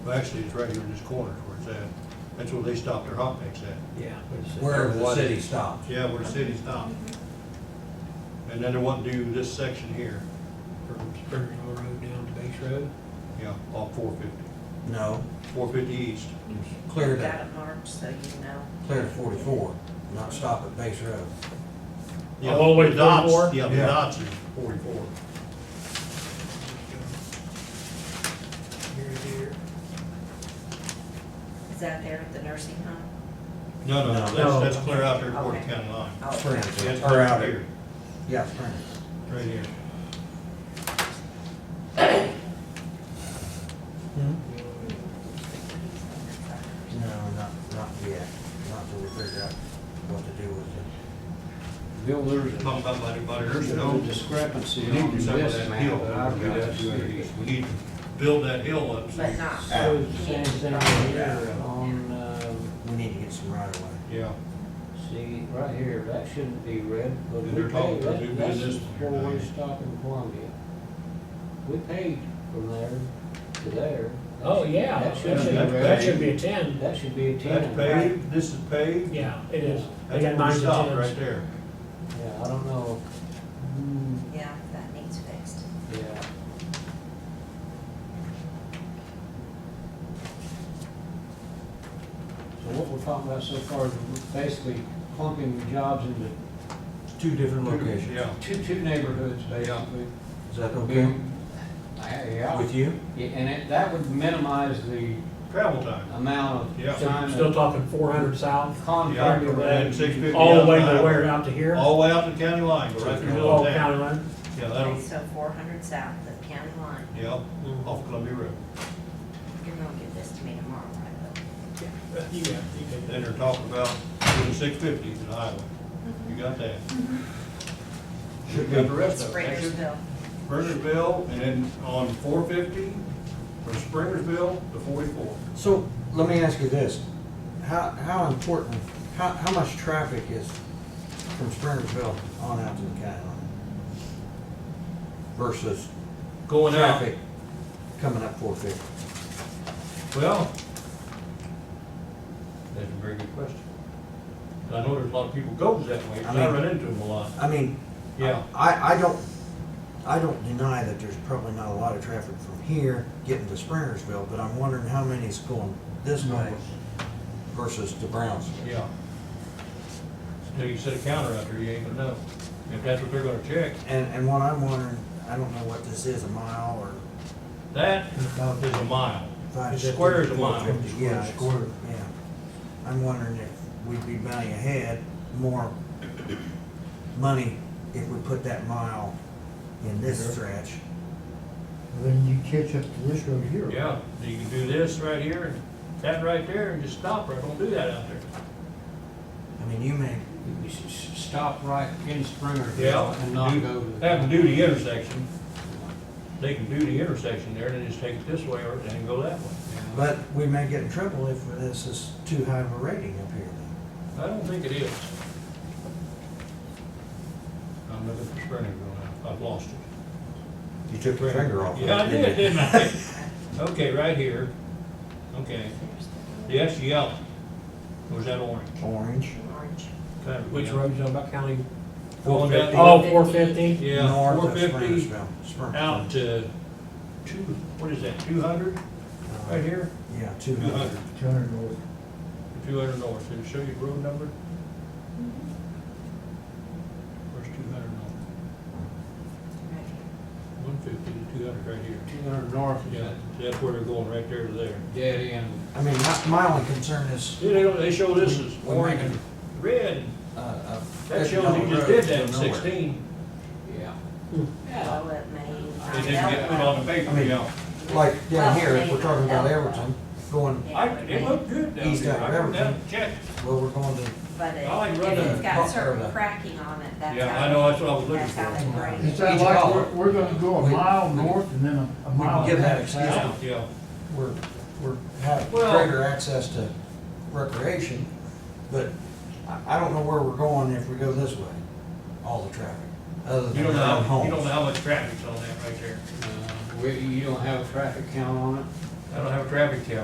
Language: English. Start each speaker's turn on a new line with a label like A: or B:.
A: Well, Actually, it's right here in this corner where it's at. That's where they stop their hot mix at.
B: Yeah. it's-
C: Wherever the
B: what-
C: city stops.
A: Yeah, where the city stopped. And then they want to do this section here,
B: From Springersville Road down to Base Road.
A: yeah, off four fifty,
C: No,
A: four fifty east.
C: it's clear
D: Got
C: to,
D: it marked, so you know.
C: clear to forty-four, not stop at Base Road.
A: Yeah,
E: all the way to
A: the dots-
E: 44?
A: Yeah, the
C: Yeah.
A: dots is forty-four.
B: Here, here.
D: Is that there at the nursing home?
A: No, no,
C: No.
A: no, that's, that's clear out there toward the
D: Okay.
A: county line.
D: Oh,
C: Spring.
A: Yeah, it's
C: Or
A: right
C: out
A: here,
C: Yeah, Springs.
A: Right here.
C: No, not, not yet, not till we figure out what to do with it.
F: Bill, there's,
A: Talking about by the, by the
F: there's
A: nursing
F: no
A: home.
F: discrepancy
A: We
F: on
A: need to settle
F: this
A: that
F: map
A: hill.
F: that I've
A: over
F: got.
A: about two hundred east. We need to build that hill up. so-
D: But not.
F: So the Same thing right here on, um,
C: We need to get some right away.
A: Yeah,
F: see, right here, that shouldn't be red, but
A: And they're
F: we
A: talking
F: paid,
A: about doing
F: that- that's
A: this
F: where
A: one.
F: we stop in Columbia. We paid from there to there,
E: Oh, yeah,
F: That
E: that
F: should
E: should,
A: be red.
E: that should be a ten,
F: that should be a
A: that's
F: ten.
A: paved, this is paved.
E: yeah, it is. They
A: That's
E: got
A: where we
E: nines
A: stopped,
E: and
A: right
E: tens.
A: there.
F: Yeah, I don't know, Hmm,
D: Yeah, that needs fixed.
F: yeah. So what we're talking about so far is basically clumping jobs into
C: Two different locations.
A: Yeah,
F: two, two neighborhoods, basically.
C: Is that
F: It'll be-
C: okay
F: Yeah,
C: with you?
F: yeah, and it, that would minimize the
A: travel time.
F: amount of
A: Yeah.
E: So,
F: time
E: Still
F: of
E: talking four hundred south,
F: contract.
A: Yeah, and 650
E: all the way
A: out
E: to
A: the
E: where,
A: highway.
E: out to here?
A: All the way out to the county line, go right through the middle
E: Oh,
A: of town.
E: county line?
A: Yeah,
D: Okay,
A: that'll,
D: so four hundred south of county line.
A: yeah, off Columbia Road.
D: You're gonna give this to me tomorrow, right?
E: You got, it, you got it.
A: Then they're talking about doing six fifty to the highway. You got that? You got the rest of it. That's it.
D: Springersville.
A: Springersville, and then on four fifty, from Springersville to forty-four.
C: So, let me ask you this, how, how important, how, how much traffic is from Springersville on out to the county line? Versus
A: Going out,
C: traffic coming up four fifty?
A: well, that's a very good question. I know there's a lot of people goes that way, 'cause I
C: I mean-
A: run into them a lot.
C: I mean,
A: Yeah.
C: I, I don't, I don't deny that there's probably not a lot of traffic from here getting to Springersville, but I'm wondering how many is going this way versus to Brownsville.
A: Yeah. Until you set a counter out there, you ain't gonna know. If that's what they're gonna check,
C: And, and what I'm wondering, I don't know what this is, a mile or
A: that is a mile.
C: five
A: It
C: fifty?
A: squares a mile.
C: 450, Yeah, it's-
A: Square.
C: yeah. I'm wondering if we'd be bounding ahead more money if we put that mile in this stretch.
G: Then you catch up to this road here.
A: Yeah, so you can do this right here and that right there and just stop right, don't do that out there.
C: I mean, you may,
F: We should s- stop right in Springerville and
A: Yeah,
F: not
A: do-
F: go to.
A: have them do the intersection. They can do the intersection there and then just take it this way or and go that way.
F: Yeah.
C: but we may get in trouble if this is too high of a rating up here then.
A: I don't think it is. I'm looking for Springerville now, I've lost it.
C: You took your finger off. of it,
A: Yeah, I
C: didn't
A: did,
C: you?
A: didn't I? Okay, right here. Okay, yes, yellow. Or is that orange?
C: Orange,
D: Orange.
A: Kind of
E: Which
A: yellow.
E: road's on about county?
A: Going down-
E: Oh, four fifty?
A: Yeah,
C: north
A: four
C: of Uh,
A: fifty
C: Springersville.
A: out
C: Springersville.
A: to two, what is that, two hundred right here? Uh-huh.
C: Yeah, two
A: Two
C: hundred.
A: hundred,
G: Two hundred north.
A: two hundred north. Did it show you road number? Where's two hundred north?
D: Right here.
A: One fifty to two hundred right here.
F: Two hundred north is
A: Yeah,
F: a
A: that's where they're going, right there to there.
F: dead end,
C: I mean, my, my only concern is,
A: See, they don't, they show this as
C: We're
A: orange
C: making-
A: and red.
C: uh, uh.
A: That shows you just did that in sixteen.
F: yeah.
D: Well, it may. uh,
A: It didn't get put on the paper, yeah.
C: Like down here, if we're talking about Everton, going,
A: I, it looked good down
C: He's
A: there.
C: got
A: I went down
C: everything.
A: and checked.
C: well, we're going to,
D: But it,
A: I like
D: if
A: running
D: it's got
C: pump or
D: certain
C: the-
D: cracking on it, that's
A: Yeah,
D: how.
A: I know, that's what I was looking
D: That's how they
A: for.
D: grade
G: It's
D: it.
G: that
C: Each
G: like,
C: column.
G: we're, we're gonna go a
C: We-
G: mile north and then a- a
C: we
G: mile.
C: can give that
G: back.
C: excuse.
A: Yeah, yeah.
C: we're, we're have
A: Well-
C: greater access to recreation, but I, I don't know where we're going if we go this way, all the traffic, other
A: You
C: than
A: don't know,
C: around
A: how- you
C: homes.
A: don't know how much traffic's on that right there.
F: Uh, We, you don't have a traffic count on it?
A: I don't have a traffic count.